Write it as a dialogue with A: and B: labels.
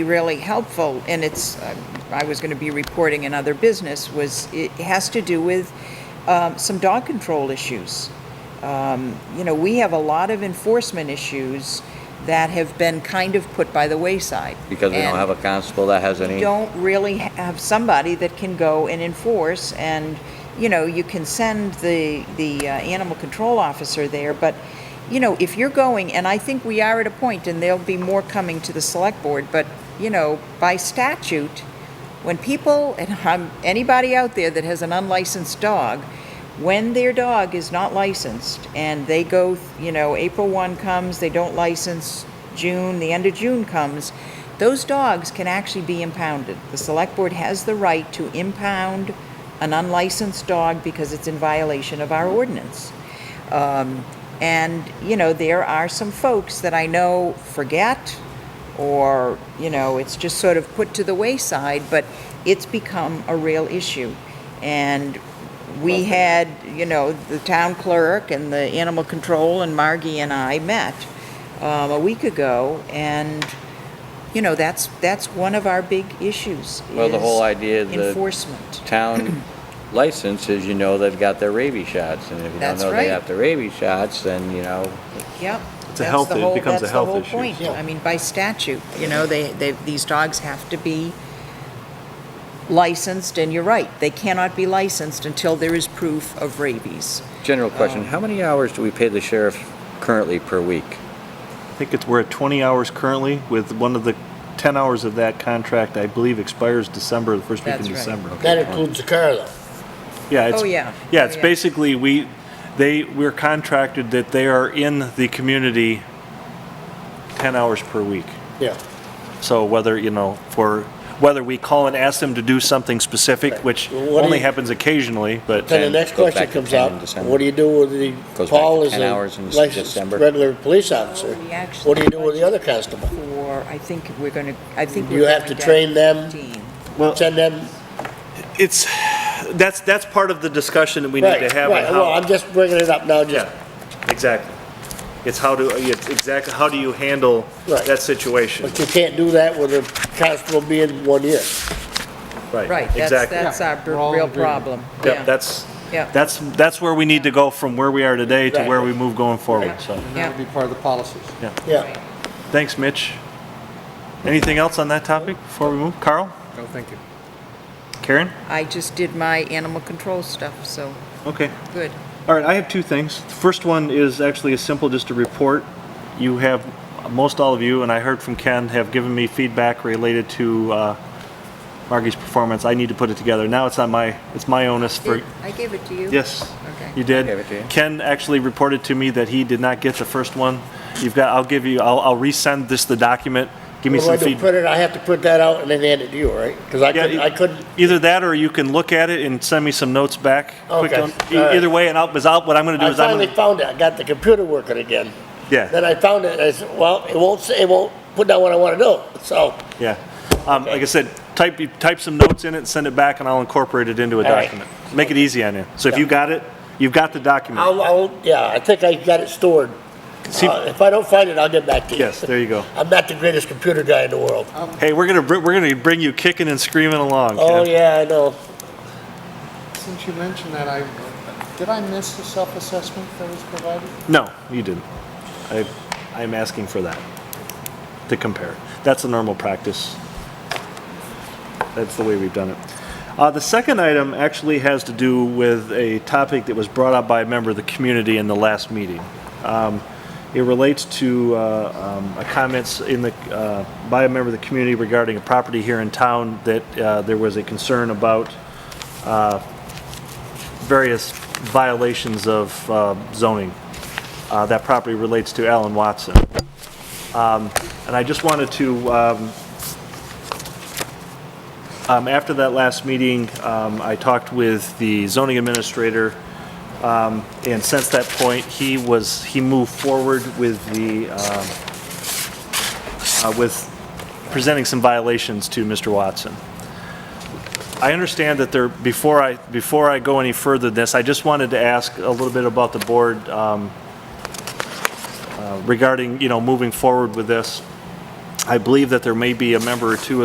A: be really helpful, and it's, uh, I was going to be reporting in other business, was it has to do with um, some dog control issues. Um, You know, we have a lot of enforcement issues that have been kind of put by the wayside.
B: Because we don't
A: And-
B: have a constable that has any,
A: don't really have somebody that can go and enforce and you know you can send the the uh, animal control officer there but you know if you're going and i think we are at a point and there'll be more coming to the select board but you know by statute when people and I'm, anybody out there that has an unlicensed dog when their dog is not licensed and they go you know april 1 comes they don't license june the end of june comes those dogs can actually be impounded. The select board has the right to impound an unlicensed dog because it's in violation of our ordinance. Um, And, you know, there are some folks that I know forget, or, you know, it's just sort of put to the wayside, but it's become a real issue. And we had, you know, the town clerk and the animal control and Margie and I met um, a week ago, and, you know, that's, that's one of our big issues.
B: well, the
A: is
B: whole idea of the
A: Enforcement.
B: town license is, you know, they've got their rabies shots, and if you don't
A: That's
B: know they
A: right.
B: have their rabies shots, then, you know,
A: Yep.
C: It's a
A: that's
C: health-
A: the
C: it
A: whole-
C: becomes a health
A: That's
C: issue.
A: the whole point. I mean, by statute, you know, they, they, these dogs have to be licensed, and you're right, they cannot be licensed until there is proof of rabies.
B: general
A: Oh.
B: question, how many hours do we pay the sheriff currently per week?
C: I think it's, we're at 20 hours currently, with one of the 10 hours of that contract, I believe, expires December, the first week in
A: That's right.
C: December.
D: That includes the car though.
C: Yeah, it's,
A: Oh, yeah.
C: Yeah, it's
A: Oh, yeah.
C: basically, we, they, we're contracted that they are in the community 10 hours per week.
D: Yeah.
C: So whether, you know, for, whether we call and ask them to do something specific, which
D: Well, what do
C: only
D: you-
C: happens occasionally, but.
D: Then the
B: And
D: next
B: goes
D: question
B: back to
D: comes
B: 10 in
D: up,
B: December.
D: what do you do with the,
B: Goes back
D: Paul
B: to
D: is
B: 10 hours in
D: a licensed
B: December.
D: regular police officer.
A: We actually
D: What do you do with the other constable?
A: For, I think we're gonna, I think.
D: You
A: we're
D: have
A: going
D: to train them?
A: 15.
C: Well,
D: Send them,
C: it's, that's, that's part of the discussion that we need
D: right,
C: to have. on
D: right,
C: how-
D: well, I'm just bringing it up now, just,
C: Yeah, exactly. It's how do, it's exactly, how do you handle
D: Right.
C: that situation?
D: but you can't do that with a constable being one year.
A: Right, that's,
C: exactly.
A: that's our
E: we're all
A: b-
E: in
A: real
E: agreement.
A: problem.
C: Yep, that's,
A: Yeah.
C: that's, that's where we need to go from where we are today to
D: Right.
C: where we move going forward, so.
E: And That would be part of the policies.
D: Yeah.
C: Thanks, Mitch. Anything else on that topic before we move? Carl?
E: No, thank you.
C: Karen?
A: I just did my animal control stuff, so,
C: Okay.
A: good.
C: All right, I have two things. The first one is actually as simple, just a report. You have, most all of you, and I heard from Ken, have given me feedback related to uh, Margie's performance. I need to put it together. Now it's on my, it's my onus for,
A: I gave it to you?
C: yes,
A: Okay.
C: you did.
B: I gave it to you.
C: Ken actually reported to me that he did not get the first one. You've got, I'll give you, I'll, I'll resend this, the document. Give me
D: Well,
C: some
D: I do
C: feedback.
D: print it, I have to print that out and then hand it to you, right? Because I
C: Yeah,
D: couldn't, I couldn't,
C: Either that or you can look at it and send me some notes back. quick
D: Okay,
C: on- e-
D: all right.
C: Either way, and I'll, 'cause I'll- what I'm gonna do
D: I
C: is I'm
D: finally
C: gonna,
D: found it, I got the computer working again.
C: yeah.
D: Then I found it, I said, well, it won't, say- it won't put down what I want to do, so,
C: Yeah. Um, like I said, type, you type some notes in it, send it back, and I'll incorporate it into a
D: All right.
C: document. Make it easy on you. So if you got it, you've got the document.
D: I'll, I'll, yeah, I think I got it stored.
C: See-
D: Uh, If I don't find it, I'll get back to you.
C: Yes, there you go.
D: I'm not the greatest computer guy in the world.
C: Hey, we're gonna, br- we're gonna bring you kicking and screaming along.
D: Oh,
C: Kev.
D: yeah, I know.
E: Since you mentioned that, I, did I miss the self-assessment that was provided?
C: No, you didn't. I, I'm asking for that, to compare. That's a normal practice. That's the way we've done it. Uh, the second item actually has to do with a topic that was brought up by a member of the community in the last meeting. Um, it relates to uh, um, a comments in the uh, by a member of the community regarding a property here in town that uh, there was a concern about uh, various violations of uh, zoning. Uh, That property relates to Alan Watson. Um, And I just wanted to, um, um, after that last meeting, um, I talked with the zoning administrator, um, and since that point, he was, he moved forward with the, um, uh, with presenting some violations to Mr. Watson. I understand that there, before I, before I go any further than this, I just wanted to ask a little bit about the board um, regarding, you know, moving forward with this. I believe that there may be a member or two